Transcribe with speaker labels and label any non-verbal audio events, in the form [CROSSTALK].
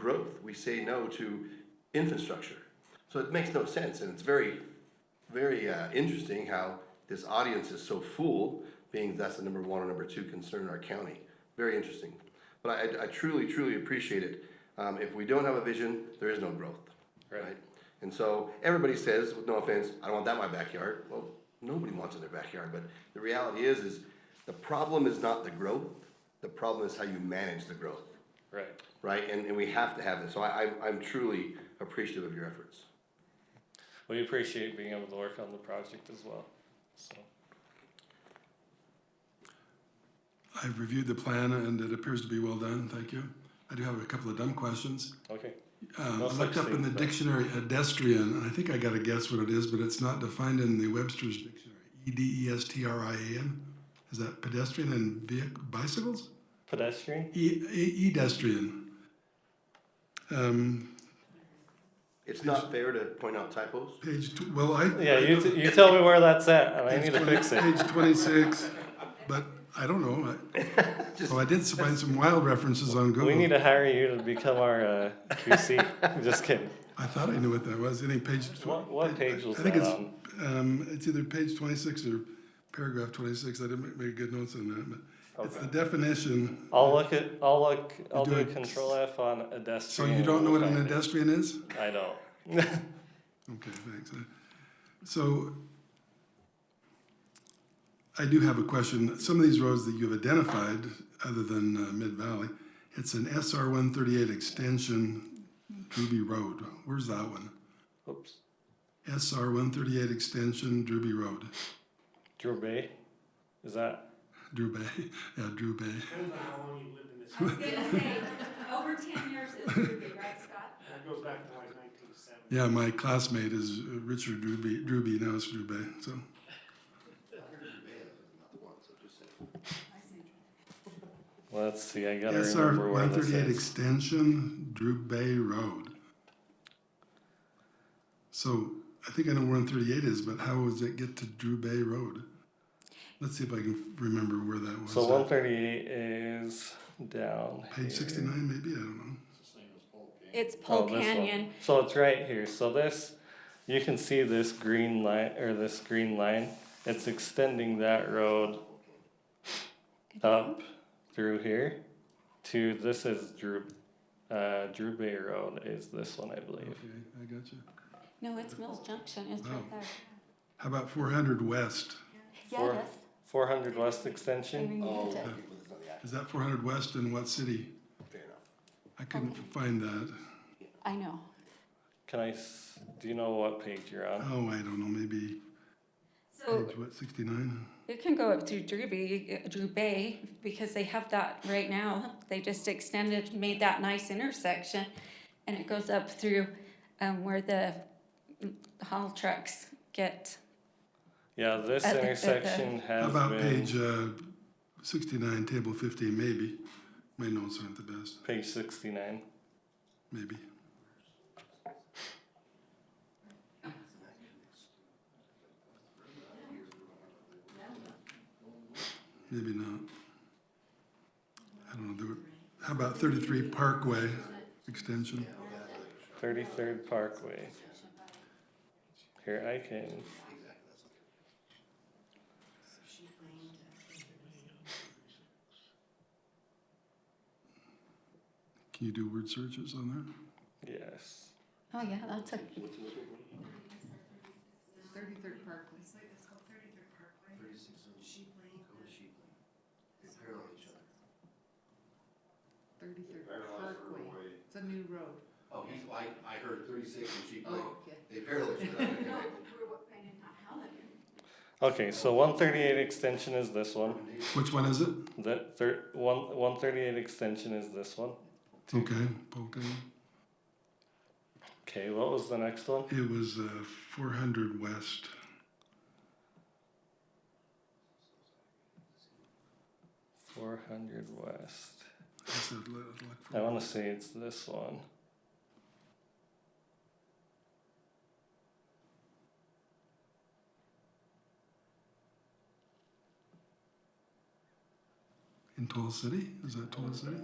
Speaker 1: growth, we say no to infrastructure. So it makes no sense, and it's very, very uh, interesting how this audience is so full, being that's the number one or number two concern in our county. Very interesting. But I- I, I truly, truly appreciate it. Um, if we don't have a vision, there is no growth,
Speaker 2: Right.
Speaker 1: right? And so everybody says, with no offense, I don't want that in my backyard. Well, nobody wants it in their backyard, but the reality is, is the problem is not the growth. The problem is how you manage the growth,
Speaker 2: Right.
Speaker 1: right? And, and we have to have this. So I, I'm, I'm truly appreciative of your efforts.
Speaker 2: We appreciate being able to work on the project as well. So,
Speaker 3: I've reviewed the plan and it appears to be well done, thank you. I do have a couple of dumb questions.
Speaker 2: okay.
Speaker 3: Um,
Speaker 2: No
Speaker 3: I looked
Speaker 2: such uh,
Speaker 3: up in
Speaker 2: thing,
Speaker 3: the
Speaker 2: but-
Speaker 3: dictionary pedestrian, and I think I gotta guess what it is, but it's not defined in the Webster's dictionary. E D E S T R I A N, is that pedestrian and vehi- bicycles?
Speaker 2: Pedestrian?
Speaker 3: E, e- edestrian. Um,
Speaker 1: It's not fair to point out typos.
Speaker 3: page, tw- well, I.
Speaker 2: Yeah, you, t- you tell me where that's at and I need to fix it.
Speaker 3: Page twenty-six, but I don't know,
Speaker 2: [LAUGHS]
Speaker 3: I- well, I did find some wild references on Google.
Speaker 2: We need to hire you to become our uh, QC. Just kidding.
Speaker 3: I thought I knew what that was. I think page. tw-
Speaker 2: What- what page was
Speaker 3: I think
Speaker 2: that
Speaker 3: it's, Um, it's either page twenty-six or paragraph twenty-six. I didn't make, make good notes on that, but it's the definition.
Speaker 2: I'll look at. I'll look. I'll
Speaker 3: do
Speaker 2: do a
Speaker 3: it.
Speaker 2: control F on pedestrian.
Speaker 3: So you don't know what an
Speaker 2: find it.
Speaker 3: pedestrian is?
Speaker 2: I don't.
Speaker 3: Okay, thanks. Uh, So I do have a question. Some of these roads that you've identified, other than uh, Mid Valley, it's an SR one thirty-eight extension, Druby Road. Where's that one?
Speaker 2: [LAUGHS] Oops.
Speaker 3: SR one thirty-eight extension, Druby Road.
Speaker 2: Drew Bay. Is that?
Speaker 3: Drew Bay, [LAUGHS] yeah, Drew Bay.
Speaker 4: Depends on how long you lived in this
Speaker 5: I was
Speaker 4: town.
Speaker 5: gonna say, over ten years is Ruby, right, Scott?
Speaker 4: That goes back to like nineteen seventy.
Speaker 3: Yeah, my classmate is uh, Richard Drewby, Drewby, now it's Drew Bay, so.
Speaker 2: Let's see. I gotta
Speaker 3: SR
Speaker 2: remember where
Speaker 3: one
Speaker 2: this
Speaker 3: thirty-eight
Speaker 2: is.
Speaker 3: extension, Drew Bay Road. So, I think I know where one thirty-eight is, but how does it get to Drew Bay Road? Let's see if I can remember where that was.
Speaker 2: So 138 is down.
Speaker 3: Page
Speaker 2: here.
Speaker 3: sixty-nine, maybe, I don't know.
Speaker 6: It's
Speaker 2: Oh,
Speaker 6: Pole
Speaker 2: this one.
Speaker 6: Canyon.
Speaker 2: So it's right here. So this, you can see this green line or this green line. It's extending that road up through here to this is Drew, uh, Drew Bay Road is this one I believe.
Speaker 3: Okay, I got you.
Speaker 6: No, it's Mills Junction, it's
Speaker 3: Oh.
Speaker 6: right there.
Speaker 3: How about four hundred west?
Speaker 2: Four-
Speaker 6: Yeah, that's.
Speaker 2: Four hundred West
Speaker 6: I
Speaker 2: Extension.
Speaker 6: removed it.
Speaker 3: Is that four hundred west in what city? I couldn't find that.
Speaker 6: I know.
Speaker 2: Can I? s- Do you know what page you're on?
Speaker 3: Oh, I don't know, maybe
Speaker 5: So,
Speaker 3: page, what, sixty-nine?
Speaker 6: Oh, It can go up through Drew Bay, Drew Bay, because they have that right now. They just extended, made that nice intersection. And it goes up through, um, where the mm, haul trucks get,
Speaker 2: Yeah, this
Speaker 6: At the- at the-
Speaker 2: intersection
Speaker 3: How
Speaker 2: has
Speaker 3: about
Speaker 2: been
Speaker 3: page uh, 69, table 15, maybe? My notes aren't the best,
Speaker 2: page sixty nine.
Speaker 3: maybe. Maybe not. I don't know. there were- How about 33 Parkway Extension?
Speaker 2: Thirty third Parkway. Here I can.
Speaker 3: Can you do word searches on there?
Speaker 2: Yes.
Speaker 6: oh yeah, that's a,
Speaker 7: Thirty-third Parkway. Thirty-third Parkway. It's a new road.
Speaker 8: Oh, he's, I, I heard thirty-six and she played,
Speaker 7: Oh, okay.
Speaker 8: they parallel each other.
Speaker 5: no, we're what, finding out how that is.
Speaker 2: Okay, so 138 extension is this one.
Speaker 3: Which one is it?
Speaker 2: The thir- one 138 extension is this one.
Speaker 3: Okay, Polk.
Speaker 2: Okay, what was the next one?
Speaker 3: It was uh, 400 West.
Speaker 2: Four hundred west.
Speaker 3: I said, let- look for-
Speaker 2: I want to say it's this one.
Speaker 3: In Toll City? Is that Toll City?